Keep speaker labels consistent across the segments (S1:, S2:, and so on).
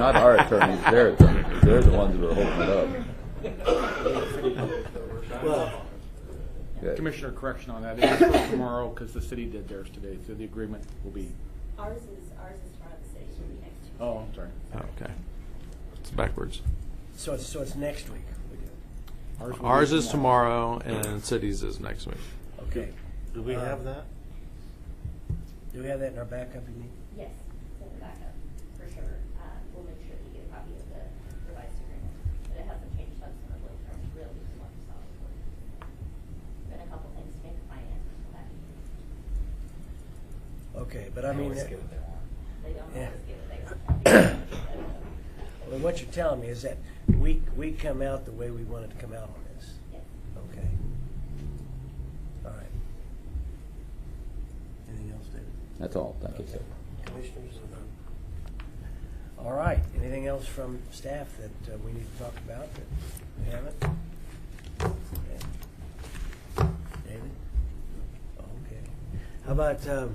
S1: attorneys, their attorneys, they're the ones that are holding it up. Yeah.
S2: Commissioner, correction on that, it is for tomorrow, because the city did theirs today, so the agreement will be,
S3: Ours is, ours is front of the city, should be next Tuesday.
S2: oh, I'm sorry.
S4: Okay. It's backwards.
S5: So it's, so it's next week we do it.
S2: will be
S4: Ours is tomorrow and cities is next week.
S5: Okay.
S6: Do we
S5: have
S6: have that?
S5: Do we have that in our backup, you mean?
S3: Yes, send it back up, for sure. Uh, we'll make sure that you get a copy of the revised agreement, but it hasn't changed substantively from really what you saw before. Been a couple things to make the finance come back.
S5: Okay, but I mean, uh, that-
S3: They don't
S5: Yeah.
S3: always give it, they just copy it. So,
S5: well, what you're telling me is that we, we come out the way we wanted to come out on this.
S3: yes.
S5: Okay. All right. Anything else, David?
S1: That's all, thank you, sir.
S5: Commissioners? or- All right, anything else from staff that uh, we need to talk about that we haven't? Okay. David? Okay. How about, um,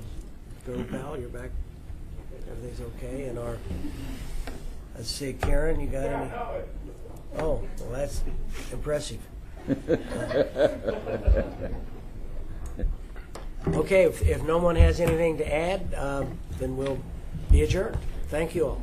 S5: Bill Powell, you're back, everything's okay, and our, let's see, Karen, you got any? Oh, well, that's impressive. Okay, if, if no one has anything to add, um, then we'll be adjourned. Thank you all.